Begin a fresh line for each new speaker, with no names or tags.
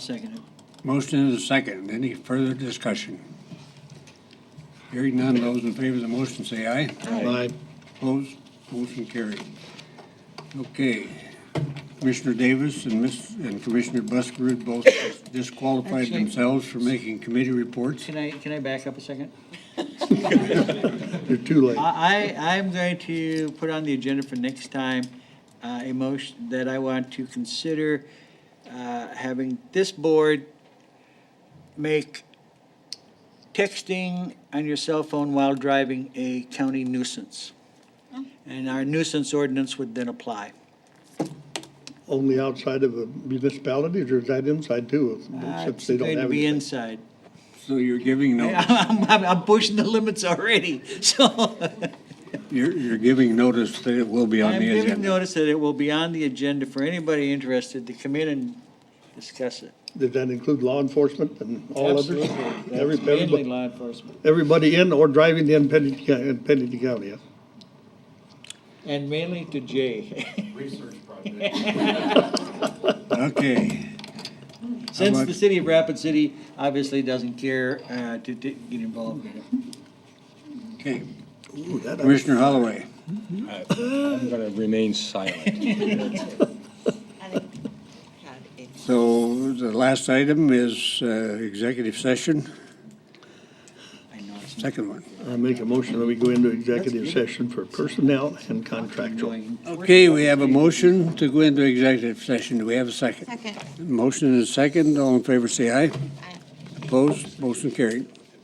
Seconded.
Motion is a second. Any further discussion? Hearing none, those in favor of the motion say aye.
Aye.
Opposed, motion carried. Okay, Commissioner Davis and Miss, and Commissioner Buskerud both disqualified
Actually-
themselves for making committee reports.
Can I, can I back up a second?
You're too late.
I, I- I'm going to put on the agenda for next time, uh, a motion that I want to consider, uh, having this board make texting on your cell phone while driving a county nuisance. And our nuisance ordinance would then apply.
Only outside of a municipality, or is that inside too?
Uh,
Since they
It's
don't
going to
have
be
anything.
inside.
So you're giving notice,
I'm, I'm- I'm pushing the limits already, so.
you're, you're giving notice that it will be on
I'm
the
giving
agenda.
notice that it will be on the agenda for anybody interested to come in and discuss it.
Does that include law enforcement and all others?
Absolutely.
Every-
That's Mainly
Everybody
law enforcement,
everybody in or driving in Pennington, County- in Pennington County, yeah?
and mainly to Jay.
Okay,
Since
about-
the city of Rapid City obviously doesn't care uh, to to get involved in it.
okay.
Ooh, that-
Commissioner Holloway,
I'm gonna remain silent.
I think had a
so the last item is, uh, executive session,
I know it's not
second one.
I make a motion that we go into executive session for personnel and contractual.
annoying.
Okay, we have a motion to go into executive session. Do we have a second?
second.
Motion is second. All in favor, say aye.
Aye.
Opposed? Motion carried.